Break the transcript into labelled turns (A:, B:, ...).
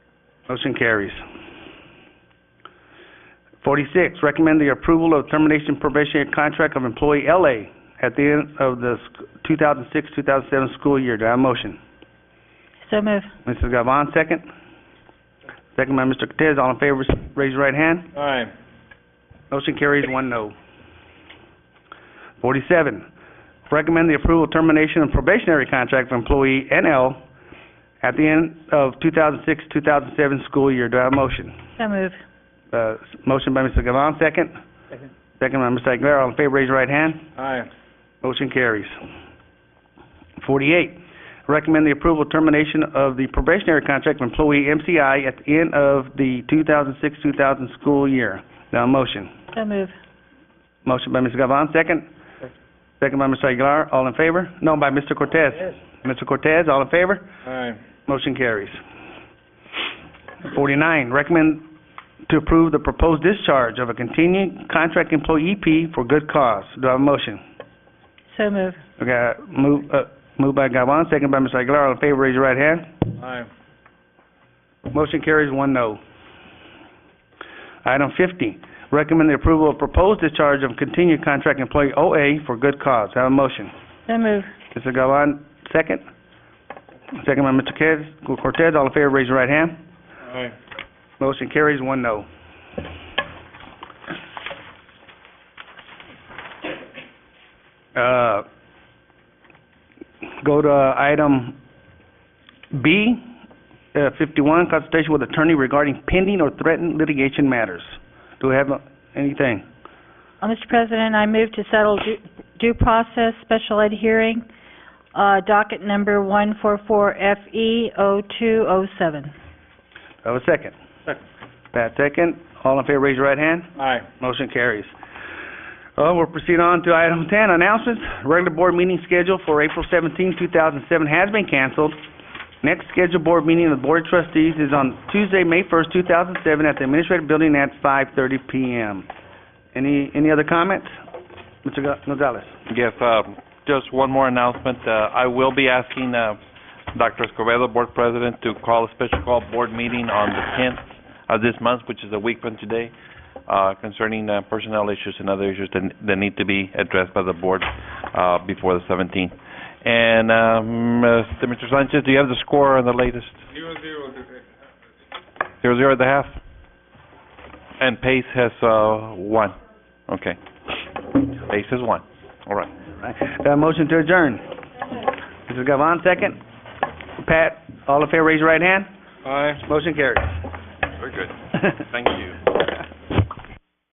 A: Motion carries. Forty-six, recommend the approval of termination probationary contract of employee L.A. at the end of the two thousand six, two thousand seven school year. Do I have a motion?
B: So move.
A: Mrs. Gavon, second. Second by Mr. Cortez. All in favor, raise your right hand.
C: Aye.
A: Motion carries, one no. Forty-seven, recommend the approval of termination of probationary contract for employee NL at the end of 2006, 2007 school year. Do I have a motion?
B: So move.
A: Uh, s- motion by Mr. Gavon, second.
C: Second.
A: Second by Mr. Aguilar. All in favor, raise your right hand.
C: Aye.
A: Motion carries. Forty-eight, recommend the approval of termination of the probationary contract of employee MCI at the end of the 2006, 2000 school year. Do I have a motion?
B: So move.
A: Motion by Mr. Gavon, second.
C: Second.
A: Second by Mr. Aguilar, all in favor? No, by Mr. Cortez. Mr. Cortez, all in favor?
C: Aye.
A: Motion carries. Forty-nine, recommend to approve the proposed discharge of a continuing contract employee EP for good cause. Do I have a motion?
B: So move.
A: Okay, move, uh, move by Gavon, second by Mr. Aguilar, all in favor, raise your right hand.
C: Aye.
A: Motion carries one no. Item fifty, recommend the approval of proposed discharge of continued contract employee OA for good cause. Have a motion.
B: So move.
A: Mr. Gavon, second. Second by Mr. Cortez. Cortez, all in favor, raise your right hand.
C: Aye.
A: Motion carries, one no. Uh, Go to uh, item B, uh, fifty-one, consultation with attorney regarding pending or threatened litigation matters. Do we have uh, anything?
B: Uh, Mr. President, I move to settle due- due process special ed hearing, uh, docket number E 144FE0207.
A: Do I Have a second?
C: Second.
A: Pat, second. All in favor, raise your right hand.
C: Aye.
A: Motion carries. Uh, We'll proceed on to item 10, announcements. Regular board meeting scheduled for April 17, 2007 has been canceled. Next scheduled board meeting of the Board of Trustees is on Tuesday, May 1st, 2007, at the Administrative Building at 5:30 PM. Any any other comments? Mr. Go- Gonzalez?
D: Yes, um, just one more announcement. Uh, I will be asking uh, Dr. Escobedo, Board President, to call a special call board meeting on the 10th of this month, which is a week from today, uh, concerning uh, personnel issues and other issues that that need to be addressed by the board uh, before the 17th. And, um, uh, Mr. Sanchez, do you have the score on the latest? Zero, zero. Zero, zero at the half? And Pace has uh, one. Okay. Pace has one. All right.
A: Uh, Motion to adjourn. Mrs. Gavon, second. Pat, all in favor, raise your right hand.
C: Aye.
A: Motion carries.
D: Very good.
A: Thank
D: you.